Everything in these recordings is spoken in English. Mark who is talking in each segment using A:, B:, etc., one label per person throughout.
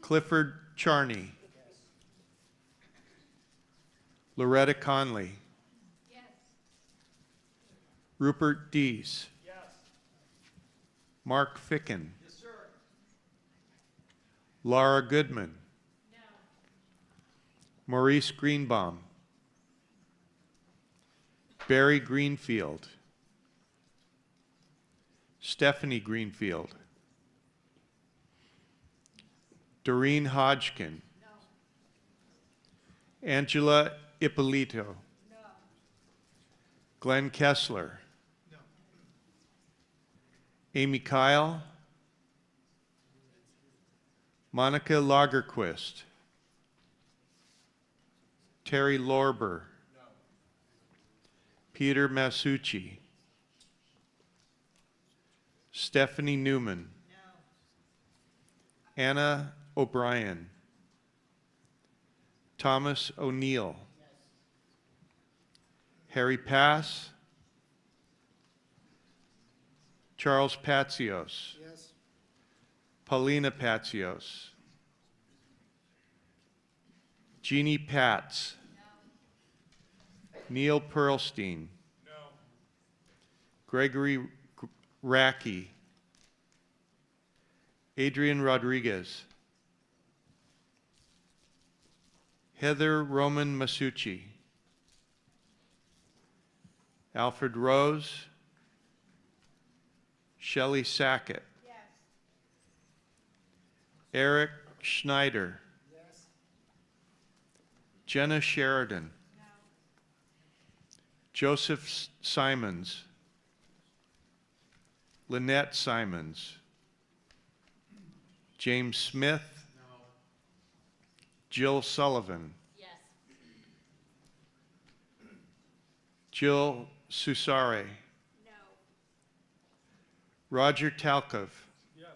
A: Clifford Charney. Loretta Conley. Rupert Dees. Mark Ficken. Laura Goodman. Maurice Greenbaum. Barry Greenfield. Stephanie Greenfield. Doreen Hodgkin. Angela Ippolito. Glenn Kessler. Amy Kyle. Monica Lagerquist. Terry Lorber. Peter Masucci. Stephanie Newman. Anna O'Brien. Thomas O'Neill. Harry Pass. Charles Patzios.
B: Yes.
A: Paulina Patzios. Jeannie Patz. Neil Pearlstein. Gregory G- Racky. Adrian Rodriguez. Heather Roman Masucci. Alfred Rose. Shelley Sackett. Eric Schneider. Jenna Sheridan. Joseph S- Simons. Lynette Simons. James Smith. Jill Sullivan.
C: Yes.
A: Jill Susare.
C: No.
A: Roger Talkov.
B: Yes.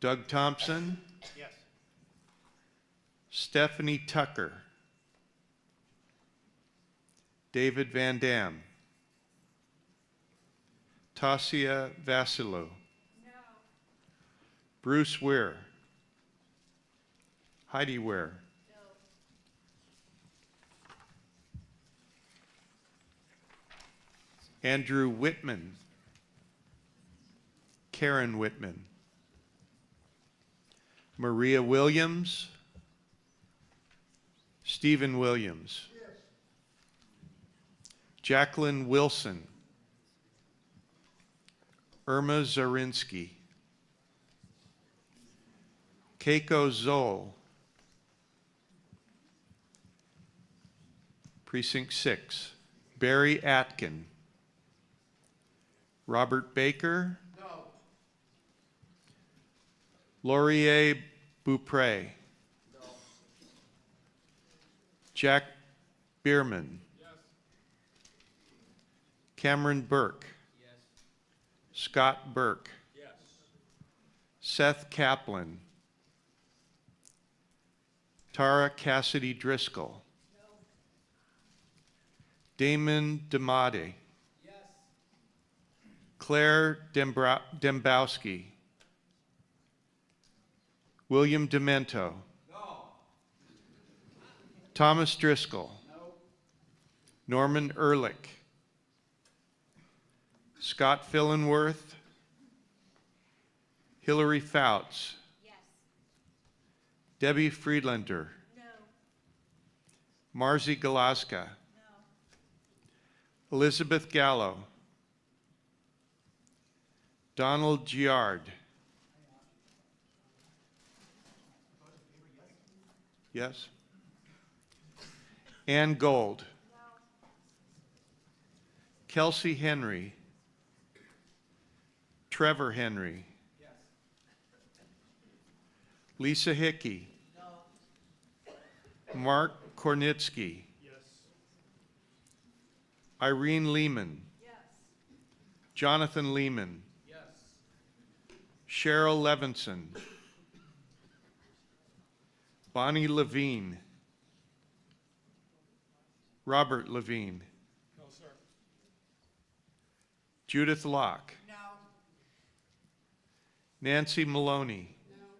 A: Doug Thompson.
B: Yes.
A: Stephanie Tucker. David Van Dam. Tasia Vassilou.
C: No.
A: Bruce Weir. Heidi Weir.
C: No.
A: Andrew Whitman. Karen Whitman. Maria Williams. Stephen Williams. Jacqueline Wilson. Irma Zarinsky. Keiko Zoll. Precinct 6. Barry Atkin. Robert Baker. No. Laurier Bupre. No. Jack Bierman. Yes. Cameron Burke. Yes. Scott Burke.
B: Yes.
A: Seth Kaplan. Tara Cassidy Driscoll. Damon Damade.
B: Yes.
A: Claire Dembra- Dembowski. William Demento.
B: No.
A: Thomas Driscoll.
B: No.
A: Norman Ehrlich. Scott Fillenworth. Hillary Fouts.
C: Yes.
A: Debbie Friedlander.
C: No.
A: Marzi Galaska. Elizabeth Gallo. Donald Giard. Yes. Ann Gold. Kelsey Henry. Trevor Henry.
B: Yes.
A: Lisa Hickey. Mark Kornitsky.
B: Yes.
A: Irene Lehman.
C: Yes.
A: Jonathan Lehman.
B: Yes.
A: Cheryl Levinson. Bonnie Levine. Robert Levine.
B: No, sir.
A: Judith Locke.
C: No.
A: Nancy Maloney.